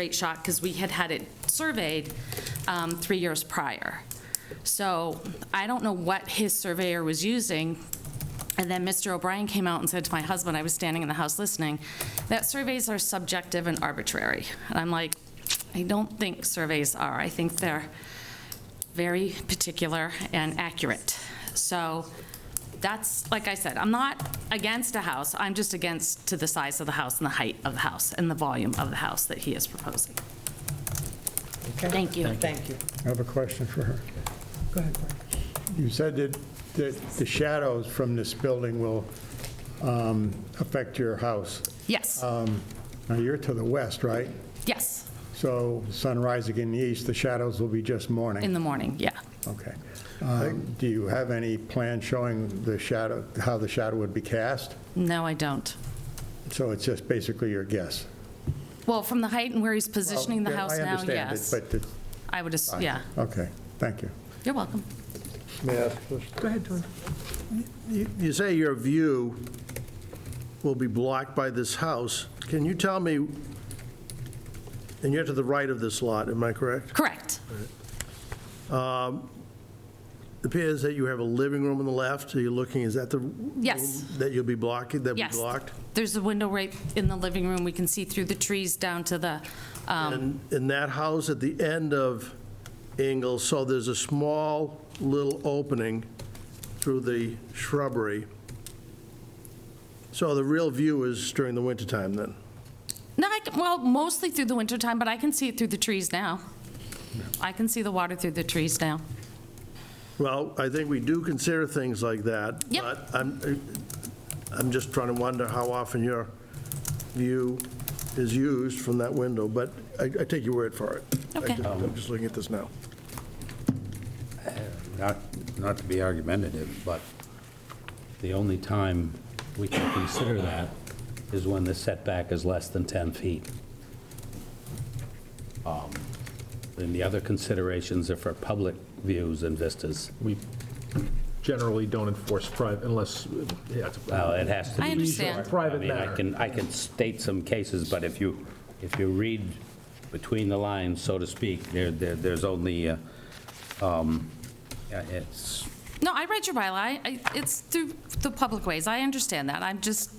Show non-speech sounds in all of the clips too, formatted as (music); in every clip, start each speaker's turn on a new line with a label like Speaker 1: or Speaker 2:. Speaker 1: rate shock because we had had it surveyed um, three years prior. So I don't know what his surveyor was using. And then Mr. O'Brien came out and said to my husband, I was standing in the house listening, that surveys are subjective and arbitrary. And I'm like, I don't think surveys are. I think they're very particular and accurate. So that's, like I said, I'm not against a house, I'm just against to the size of the house and the height of the house and the volume of the house that he is proposing. Thank you.
Speaker 2: Thank you.
Speaker 3: I have a question for her.
Speaker 2: Go ahead, Brian.
Speaker 3: You said that, that the shadows from this building will um, affect your house.
Speaker 1: Yes,
Speaker 3: Um, Now, you're to the west, right?
Speaker 1: yes,
Speaker 3: So sun rising in the east, the shadows will be just
Speaker 1: in
Speaker 3: morning.
Speaker 1: the morning, yeah.
Speaker 3: Okay. Um, Do you have any plan showing the shadow, how the shadow would be cast?
Speaker 1: No, I don't.
Speaker 3: So it's just basically your guess?
Speaker 1: Well, from the height and where he's positioning the
Speaker 3: Well,
Speaker 1: house
Speaker 3: Oh, I
Speaker 1: now,
Speaker 3: understand it,
Speaker 1: yes.
Speaker 3: but it's...
Speaker 1: I would, as- yeah,
Speaker 3: Okay, thank you.
Speaker 1: you're welcome.
Speaker 4: May I ask a question?
Speaker 2: Go ahead, Tony.
Speaker 4: You you say your view will be blocked by this house. Can you tell me, and you're to the right of this lot, am I correct?
Speaker 1: Correct,
Speaker 4: It appears that you have a living room on the left, are you looking, is that the?
Speaker 1: Yes.
Speaker 4: room That you'll be blocking, that'll be
Speaker 1: yes.
Speaker 4: blocked?
Speaker 1: There's a window right in the living room, we can see through the trees down to the, um,
Speaker 4: And in that house at the end of Ingalls, so there's a small little opening through the shrubbery. So the real view is during the wintertime, then?
Speaker 1: No, I can, well, mostly through the wintertime, but I can see it through the trees now. I can see the water through the trees now.
Speaker 4: Well, I think we do consider things like that.
Speaker 1: Yep.
Speaker 4: But I'm, I'm just trying to wonder how often your view is used from that window, but I, I take your word for it. I
Speaker 1: Okay.
Speaker 4: just- I'm just looking at this now.
Speaker 5: Not, not to be argumentative, but the only time we can consider that is when the setback is less than 10 feet. Um, And the other considerations are for public views and vistas.
Speaker 6: We generally don't enforce private unless, yeah. it's-
Speaker 5: Well, Uh, it has to be...
Speaker 1: I understand.
Speaker 6: Private
Speaker 5: I mean, I
Speaker 6: matter.
Speaker 5: can, I can state some cases, but if you, if you read between the lines, so to speak, there, there- there's only, uh, um, yeah, it's,
Speaker 1: No, I read your bylaw. I- I- It's through the public ways. I understand that. I'm just,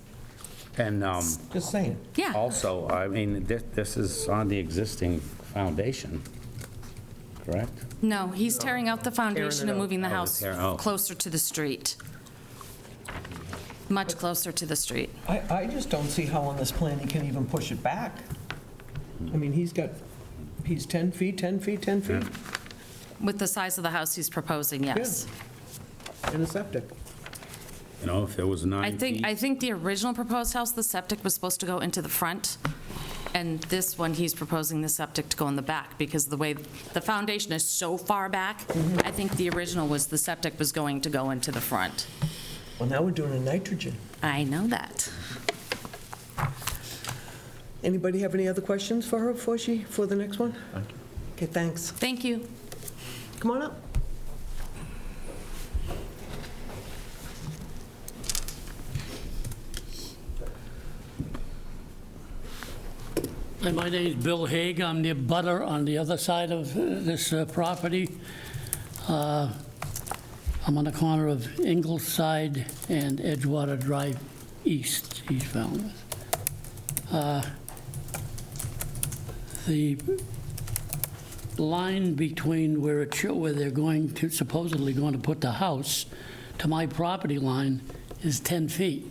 Speaker 5: and... um,
Speaker 2: Just saying.
Speaker 1: yeah.
Speaker 5: Also, I mean, thi- this is on the existing foundation, correct?
Speaker 1: No, he's tearing out the foundation and moving the
Speaker 5: Oh,
Speaker 1: house
Speaker 5: tear- oh.
Speaker 1: closer to the street. Much closer to the street.
Speaker 2: I, I just don't see how on this plan he can even push it back. I mean, he's got, he's 10 feet, 10 feet, 10 feet
Speaker 1: With the size of the house he's proposing, yes.
Speaker 2: in a septic.
Speaker 5: You know, if it was
Speaker 1: I
Speaker 5: nine
Speaker 1: think, I
Speaker 5: feet,
Speaker 1: think the original proposed house, the septic was supposed to go into the front, and this one, he's proposing the septic to go in the back, because the way, the foundation is so far back, I think the original was the septic was going to go into the front.
Speaker 2: Well, now we're doing a nitrogen.
Speaker 1: I know that.
Speaker 2: Anybody have any other questions for her before she, for the next one? Okay, thanks.
Speaker 1: Thank you.
Speaker 2: Come on up.
Speaker 7: Hi, my name is Bill Haig. I'm the butter on the other side of uh, this uh, property. Uh, I'm on the corner of Ingleside and Edgewater Drive East, East Falmouth. Uh, The line between where it, show- where they're going to, supposedly going to put the house to my property line is 10 feet.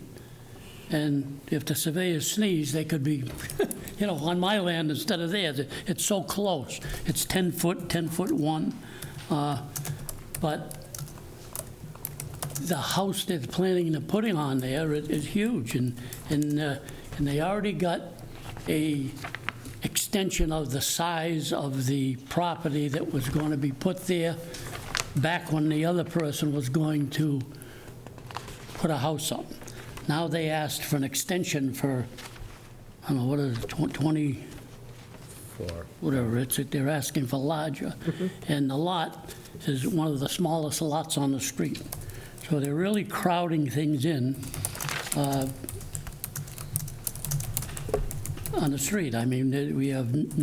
Speaker 7: And if the surveyors sneeze, they could be, (laughs) you know, on my land instead of theirs. It's so close. It's 10 foot, 10 foot 1. Uh, But the house they're planning to put it on there is is huge, and, and, uh, and they already got a extension of the size of the property that was going to be put there back when the other person was going to put a house up. Now they asked for an extension for, I don't know, what is it, tw- 20? Whatever, it's, they're asking for larger. And the lot is one of the smallest lots on the street. So they're really crowding things in uh, on the street. I mean, we have